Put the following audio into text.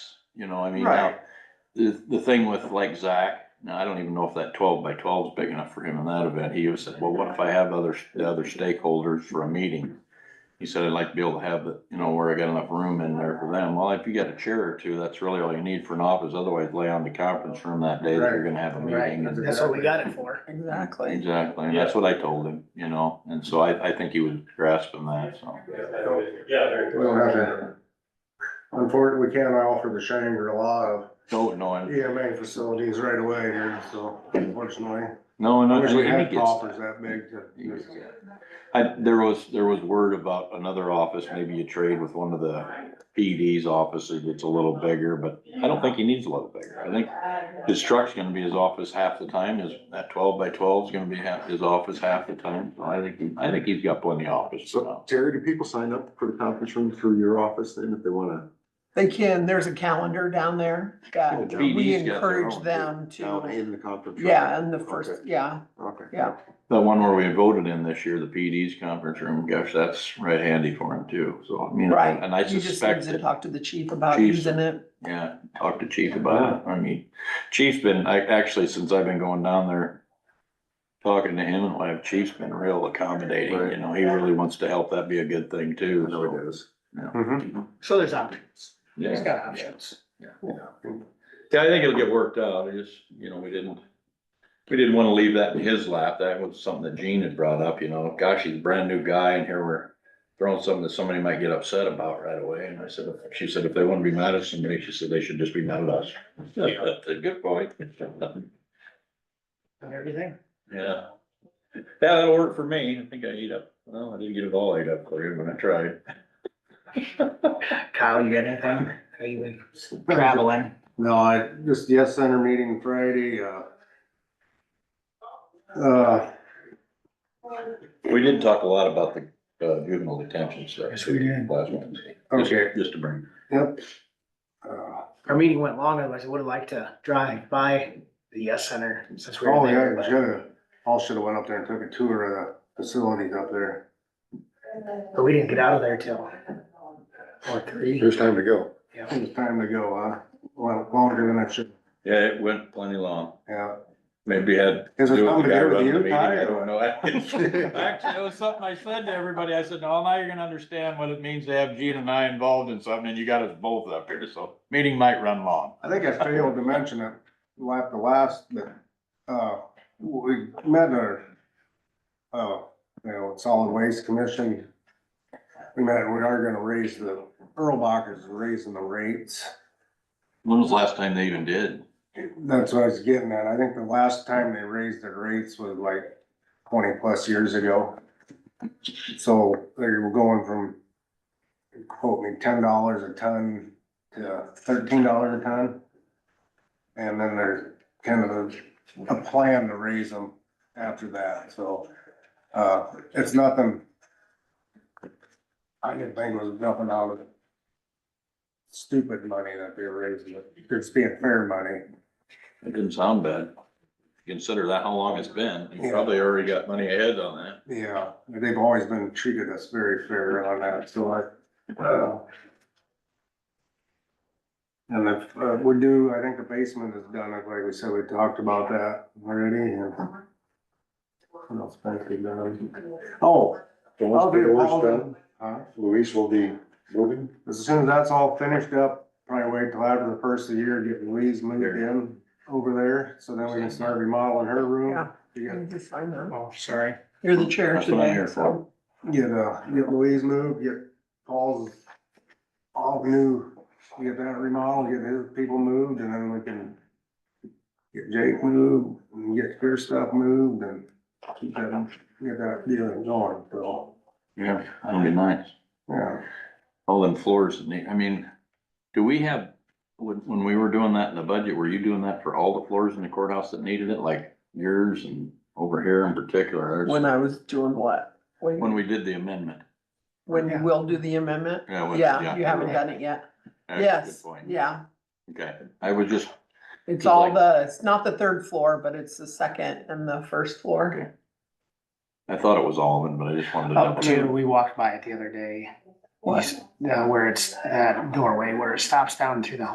you know, I mean, now, Right. the, the thing with like Zach, now, I don't even know if that twelve by twelve is big enough for him in that event, he was said, well, what if I have other, the other stakeholders for a meeting? He said, I'd like to be able to have the, you know, where I got enough room in there for them, well, if you got a chair or two, that's really all you need for an office, otherwise lay on the conference room that day that you're gonna have a Right. meeting. Right. That's what we got it for. Exactly. Exactly, and that's what I told him, you know, and so I, I think he was grasping that, so. Yeah, very We don't have to, unfortunately, we can't offer the Shangri-La of No, no, and, EMA facilities right away here, so unfortunately. no, and I I wish we and had he gets coffers that big to. just- I, there was, there was word about another office, maybe you trade with one of the PD's offices that's a little bigger, but I don't think he needs a lot bigger. I think his truck's gonna be his office half the time, his, that twelve by twelve is gonna be half, his office half the time. So I think, he- I think he's got plenty of office So now. Terry, do people sign up for the conference room through your office then if they wanna? They can, there's a calendar down there Oh, that down we PD's got their encourage own, them Down to, in the conference room? yeah, and the first, Okay. yeah, Okay. yeah. The one where we voted in this year, the PD's conference room, gosh, that's right handy for him too. So, I mean, Right. and I You just need suspect to that talk to the chief about Chief's- using it. Yeah, talk to chief about it. I mean, chief's been, I, actually, since I've been going down there, talking to him and like, chief's been real accommodating, you know, he really wants to help. That'd be a good thing too. I know so, it is. Mhm. So there's options. He's Yeah, got options. Yeah, I think it'll get worked out. I just, you know, we didn't, we didn't want to leave that in his lap. That was something that Gene had brought up, you know, gosh, he's a brand new guy and here we're throwing something that somebody might get upset about right away. And I said, she said, if they want to be mad at somebody, she said, they should just be mad at us. That's a good point. And everything. Yeah. Yeah, that'll work for me. I think I ate up, well, I didn't get it all ate up for you, but I tried. Kyle, you got anything? How you been traveling? No, I, just the S Center meeting Friday, uh. Uh, We did talk a lot about the uh, juvenile detention stuff. Yes, we did. Last Wednesday. Just- okay, Just to bring. yep. Uh, Our meeting went long, otherwise I would have liked to drive by the Yes Center since we Oh, were yeah, there. we but- should've, all should've went up there and took a tour of the facilities up there. But we didn't get out of there till four, three. There's time to go. Yeah. It was time to go, huh? Well, longer than I should, Yeah, it went plenty long. yeah. Maybe had. Is there do with the something to guy do with running the you, meeting, Ty, I or don't what? know. Actually, it was something I said to everybody. I said, no, now you're gonna understand what it means to have Gene and I involved in something and you got us both up here. So meeting might run long. I think I failed to mention it, like the last, that, uh, we met our, uh, you know, solid waste commission. We met, we are gonna raise the, Erlbach is raising the rates. When was the last time they even did? That's what I was getting at. I think the last time they raised their rates was like twenty plus years ago. So they were going from, quote me, ten dollars a ton to thirteen dollars a ton. And then there's kind of a, a plan to raise them after that, so, uh, it's nothing. I didn't think it was nothing out of stupid money that they were raising, it. it's being fair money. It didn't sound bad. Consider that how long it's been. You Yeah. probably already got money ahead on that. Yeah, they've always been treated us very fair on that, so I, uh. And if, uh, we do, I think the basement is done, like we said, we talked about that already, and. What else might be done? Oh, So I'll once the be door's appalled, done, huh? Luis will be moving. As soon as that's all finished up, probably wait till after the first of the year, get Louise moved in over there, so then we can start remodeling her room. You Get, need to sign that. Oh, sorry. You're the chair That's what I'm today, here so. for. get, uh, get Louise moved, get Paul's, all new, get that remodeled, get his people moved, and then we can get Jake moved, and get your stuff moved, and keep that, get that deal going, so, Yeah, that'd be nice. yeah. All them floors, that need- I mean, do we have, when, when we were doing that in the budget, were you doing that for all the floors in the courthouse that needed it, like yours and over here in particular? When There's- I was doing what? When, When we did the amendment. when you Yeah. will do the amendment? Yeah, when- Yeah, you haven't okay. done it yet. That's a good Yes, point. yeah. Okay, I was just, It's It's all like- the, it's not the third floor, but it's the second and the first floor. Okay. I thought it was all of it, but I just wanted to Up double to, check. we walked by it the other day, What? uh, where it's, that doorway, where it stops down through the